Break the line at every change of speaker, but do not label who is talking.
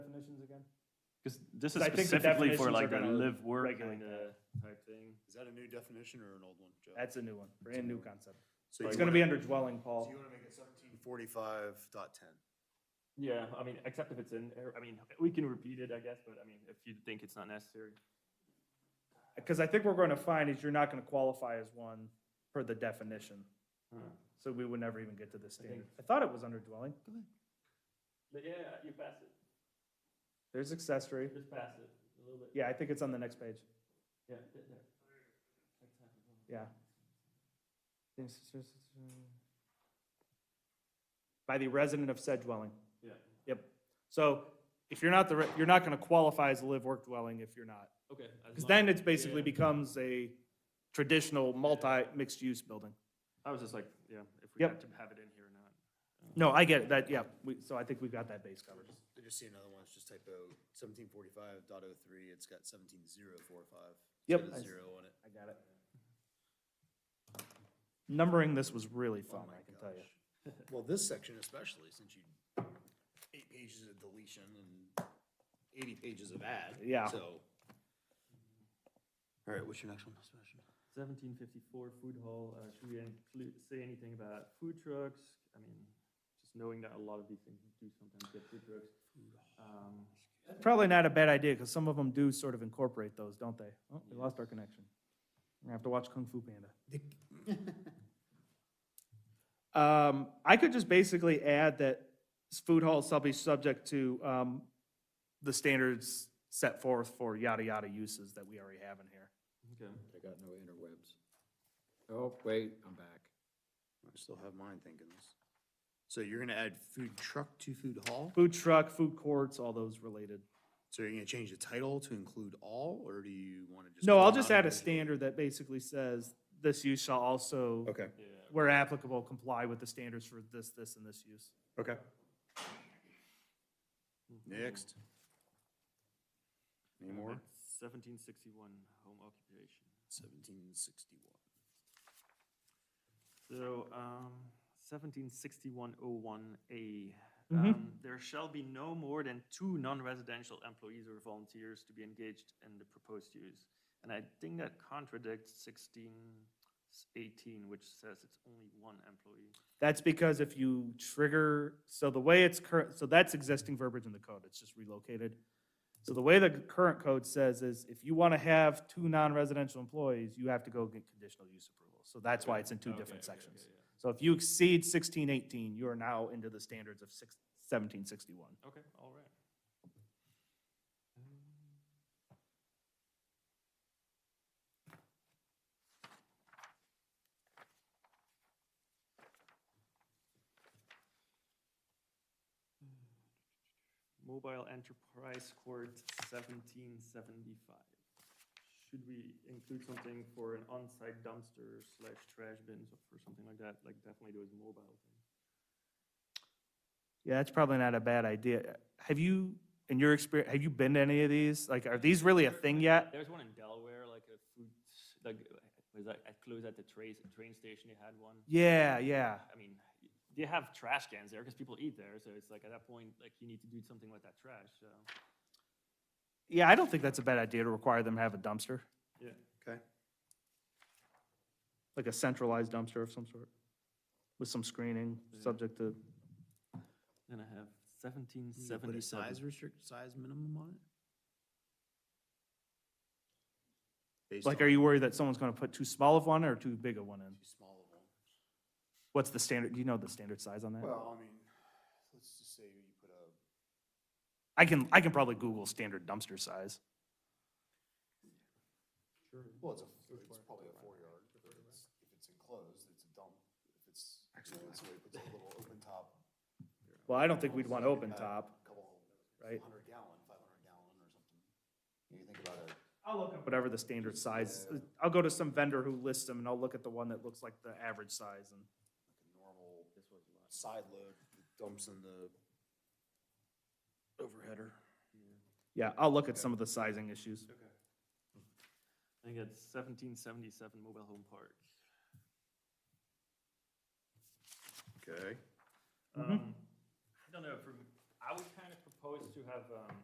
definitions again?
Because this is
I think the
specifically
definitions
for
are
like a
gonna
live work.
regulate the type thing.
Is that a new definition or an old one, Joe?
That's a new one, brand new concept.
So
It's
you
gonna be
wanna-
under dwelling,
So
Paul.
you wanna make it seventeen forty-five dot ten?
Yeah, I mean, except if it's in, I mean, we can repeat it, I guess, but I mean, if you think it's not necessary.
Because I think what we're gonna find is you're not gonna qualify as one per the definition. So we would never even get to this
Hmm. I think-
standard. I thought it was under dwelling.
But yeah, you pass it,
There's accessory.
just pass it a little bit.
Yeah, I think it's on the next page.
Yeah.
Yeah. By the resident of said dwelling.
Yeah.
Yep. So if you're not the, re- you're not gonna qualify as a live-work dwelling if you're not.
Okay.
Because then it's basically
yeah.
becomes a traditional multi-mixed-use building.
I was just like, yeah, if we
Yep.
have to have it in here or not.
No, I get it, that, yeah, we, so I think we've got that base covered.
I just see another one, it's just typo, seventeen forty-five dot oh three, it's got seventeen zero four five.
Yep.
It's got a zero on it.
I got it. Numbering this was really fun,
Oh my
I can tell you.
gosh. Well, this section especially, since you, eight pages of deletion and eighty pages of add.
Yeah.
So. All right, what's your next one, Sebastian?
Seventeen fifty-four food hall, uh, should we include, say anything about food trucks? I mean, just knowing that a lot of these things do sometimes get food trucks. Um,
Probably not a bad idea, because some of them do sort of incorporate those, don't they? Oh, we lost our connection. We're gonna have to watch Kung Fu Panda. Um, I could just basically add that s- food halls shall be subject to, um, the standards set forth for yada yada uses that we already have in here.
Okay.
I got no interwebs. Oh, wait, I'm back.
I still have mine thinking this. So you're gonna add food truck to food hall?
Food truck, food courts, all those related.
So you're gonna change the title to include all, or do you wanna just?
No,
call
I'll
them
just add
out
a
individually?
standard that basically says this use shall also,
Okay,
Yeah.
where applicable, comply with the standards for this, this, and this use.
okay. Next. Any more?
Seventeen sixty-one, home occupation.
Seventeen sixty-one.
So, um, seventeen sixty-one oh one A.
Mhm.
Um, there shall be no more than two non-residential employees or volunteers to be engaged in the proposed use. And I think that contradicts sixteen eighteen, which says it's only one employee.
That's because if you trigger, so the way it's current, so that's existing verbiage in the code, it's just relocated. So the way the current code says is if you want to have two non-residential employees, you have to go get conditional use approval. So that's why it's in two different sections. So if you exceed sixteen eighteen, you are now into the standards of six, seventeen sixty-one.
Okay, all right. Mobile Enterprise Court seventeen seventy-five. Should we include something for an on-site dumpster slash trash bins or something like that? Like definitely those mobile things.
Yeah, that's probably not a bad idea. Have you, in your experience, have you been to any of these? Like, are these really a thing yet?
There's one in Delaware, like a food, like, was that, at close at the train, train station, they had one.
Yeah, yeah.
I mean, y- they have trash cans there because people eat there, so it's like at that point, like you need to do something with that trash, so.
Yeah, I don't think that's a bad idea to require them to have a dumpster,
Yeah.
Okay.
like a centralized dumpster of some sort, with some screening, subject to,
Then I have seventeen
You put a size restrict, size minimum on it? Based
like, are
on
you worried that someone's gonna put too small of one or too big of one in?
too small of one?
What's the standard, do you know the standard size on that?
Well, I mean, let's just say you put a.
I can, I can probably Google standard dumpster size.
Well, it's a, it's probably a four yard, if it's, if it's enclosed, it's a dump, if it's, you know, it's a it's a little open top.
Well, I don't think we'd want
So you
open
got
top.
a Couple,
right?
hundred gallon, five hundred gallon or something. You think about it,
I'll look up. Whatever the standard size, I'll go to some vendor who lists them and I'll look at the one that looks like the average size and.
like a normal side load that dumps in the overheader.
Yeah, I'll look at some of the sizing issues.
I think it's seventeen seventy-seven mobile home park.
Okay. Mm-hmm.
Um, I don't know, for, I would kind of propose to have, um,